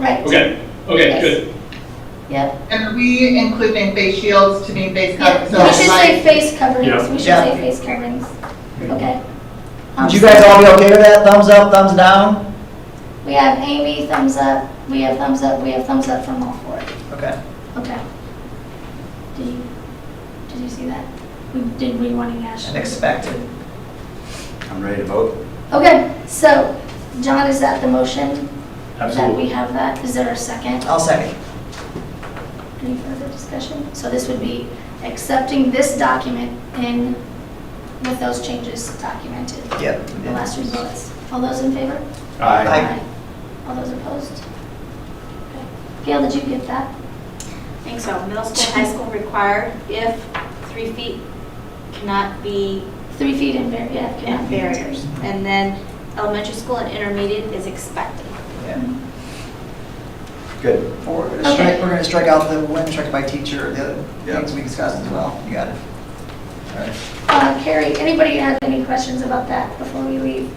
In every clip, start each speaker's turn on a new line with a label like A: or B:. A: Okay, okay,
B: Yes.
A: good.
B: Yep,
C: And are we including face shields to mean face
D: Yeah,
C: coverings?
D: we should say face coverings,
A: Yeah.
D: we should
B: Yeah. Um,
D: say face coverings, okay?
B: would you guys all be okay with that, thumbs up, thumbs down?
D: We have Amy, thumbs up, we have thumbs up, we have thumbs up from all four,
B: Okay.
D: okay? Did you, did you see that? We Did we want to
B: And
D: ash?
B: expected.
E: I'm ready to vote.
D: Okay, so, John, is that the motion? That
A: Absolutely.
D: we have that, is there a second?
B: I'll second.
D: Any further discussion? So this would be accepting this document in, with those changes documented,
B: Yep.
D: the last three bullets. All those in favor?
B: Aye.
D: All those opposed? Okay. Gail, did you get that?
F: think so. Middle school, high school required if three feet cannot be
D: Three feet in bar, yeah. okay.
F: in barriers. And then elementary school and intermediate is expected.
B: Yeah.
E: Good.
B: Or We're gonna strike, we're gonna strike out the when instructed by teacher, the other
E: Yeah.
B: things we discussed as well. You got it. All right.
D: Uh, Carrie, anybody have any questions about that before we leave?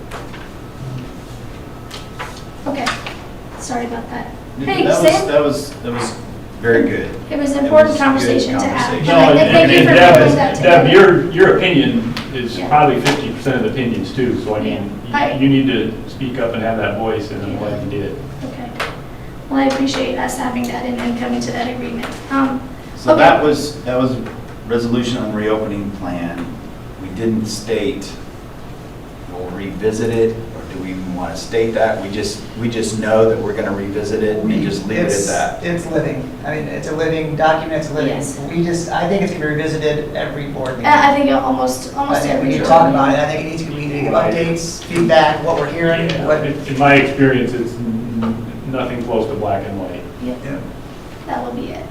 D: Okay, sorry about that. Hey,
E: That was-
D: Sam?
E: That was, that was very good.
D: It was an important
E: It was a good
D: conversation to have.
E: conversation.
A: No, and-
D: Thank
A: and
D: you
A: and
D: for bringing that
A: Deb, Deb,
D: together.
A: your, your opinion is
D: Yeah.
A: probably fifty percent of opinions too, so I mean,
D: I-
A: you- you need to speak up and have that voice, and I'm glad you did.
D: Okay. Well, I appreciate us having that and then coming to that agreement. Um,
E: So
D: Okay.
E: that was, that was resolution on reopening plan. We didn't state, we'll revisit it, or do we even want to state that? We just, we just know that we're going to revisit it and just leave it
B: It's-
E: at that.
B: It's living. I mean, it's a living document, it's living.
D: Yes.
B: We just, I think it's gonna be revisited every board meeting.
D: I I think almost,
B: I
D: almost
B: think we
D: every.
B: need to talk about it. I think it needs to be, we need to give
A: Right.
B: updates, feedback, what we're hearing, what.
A: In in my experience, it's n- nothing close to black and white.
D: Yeah.
B: Yeah.
D: That will be it.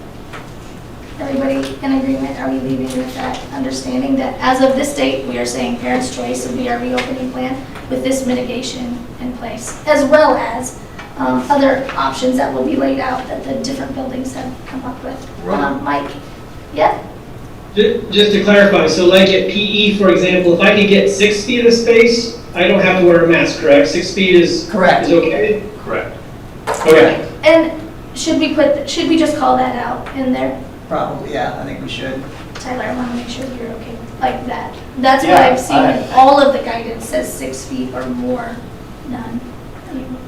D: Everybody in agreement, are we leaving with that understanding that as of this date, we are saying parents' choice would be our reopening plan with this mitigation in place, as well as um, other options that will be laid out that the different buildings have come up with. Um, Mike? Yeah?
G: Ju- Just to clarify, so like at PE, for example, if I could get six feet of space, I don't have to wear a mask, correct? Six feet is,
B: Correct.
G: is okay?
A: Correct.
G: Okay.
D: And should we put, should we just call that out in there?
B: Probably, yeah, I think we should.
D: Tyler, I want to make sure you're okay with like that. That's what I've seen.
E: Yeah, I-
D: All of the guidance says six feet or more, none.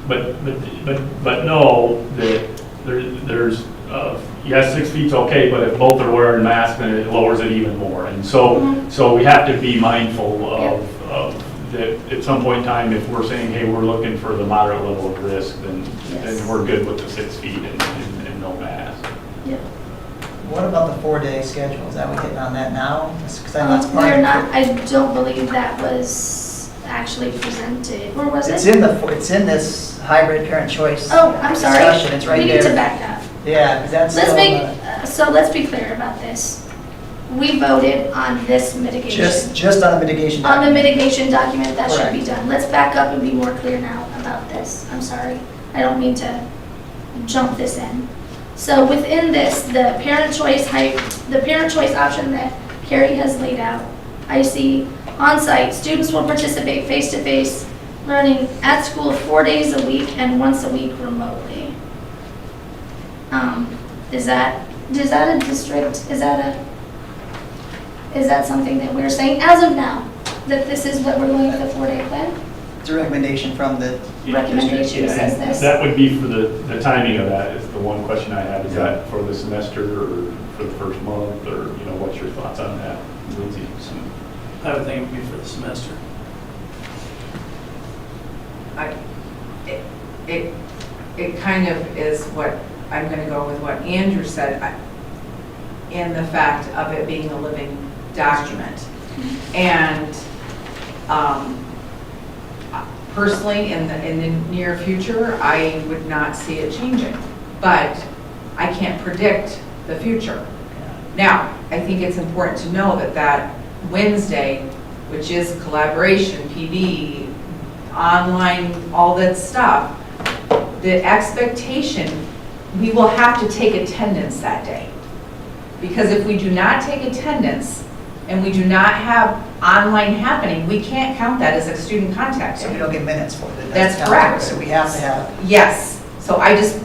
A: But, but, but, but know that there, there's, uh, yes, six feet's okay, but if both are wearing masks, then it lowers it even more. And so,
D: Mhm.
A: so we have to be mindful of, of, that at some point in time, if we're saying, hey, we're looking for the moderate level of risk, then,
D: Yes.
A: then we're good with the six feet and, and and no mask.
D: Yeah.
B: What about the four-day schedule? Is that we hitting on that now? Because I know it's
D: Um,
B: part of.
D: They're not, I don't believe that was actually presented, or was it?
B: It's in the, fo- it's in this hybrid parent choice.
D: Oh, I'm sorry.
B: Discussion, it's right
D: We need to
B: there.
D: back up.
B: Yeah, because that's.
D: Let's
B: still
D: make,
B: on
D: uh, so let's be clear about this. We voted on this
B: the-
D: mitigation.
B: Just, just on the mitigation.
D: On the
B: document.
D: mitigation document, that should be
B: Correct.
D: done. Let's back up and be more clear now about this. I'm sorry. I don't mean to jump this in. So within this, the parent choice hype, the parent choice option that Carrie has laid out, I see on-site, students will participate face-to-face learning at school four days a week and once a week remotely. Um, Is that, is that a district, is that a, is that something that we're saying as of now, that this is what we're doing with the four-day plan?
B: It's a recommendation from the
D: Recommendation
A: Yeah,
D: says
A: and
D: this.
A: That would be for the, the timing of that is the one question I have. Is that for the semester or for the first month or, you know, what's your thoughts on that, Lindsay?
H: I would think it would be for the semester.
I: I- It, it it kind of is what, I'm going to go with what Andrew said, I- in the fact of it being a living document. And um, personally, in the, in the near future, I would not see it changing. But I can't predict the future. Now, I think it's important to know that that Wednesday, which is collaboration, PD, online, all that stuff, the expectation, we will have to take attendance that day. Because if we do not take attendance and we do not have online happening, we can't count that as a student contact
B: So
I: day.
B: we don't get minutes for it.
I: That's
B: counted.
I: correct.
B: So we have to have.
I: Yes, so I just,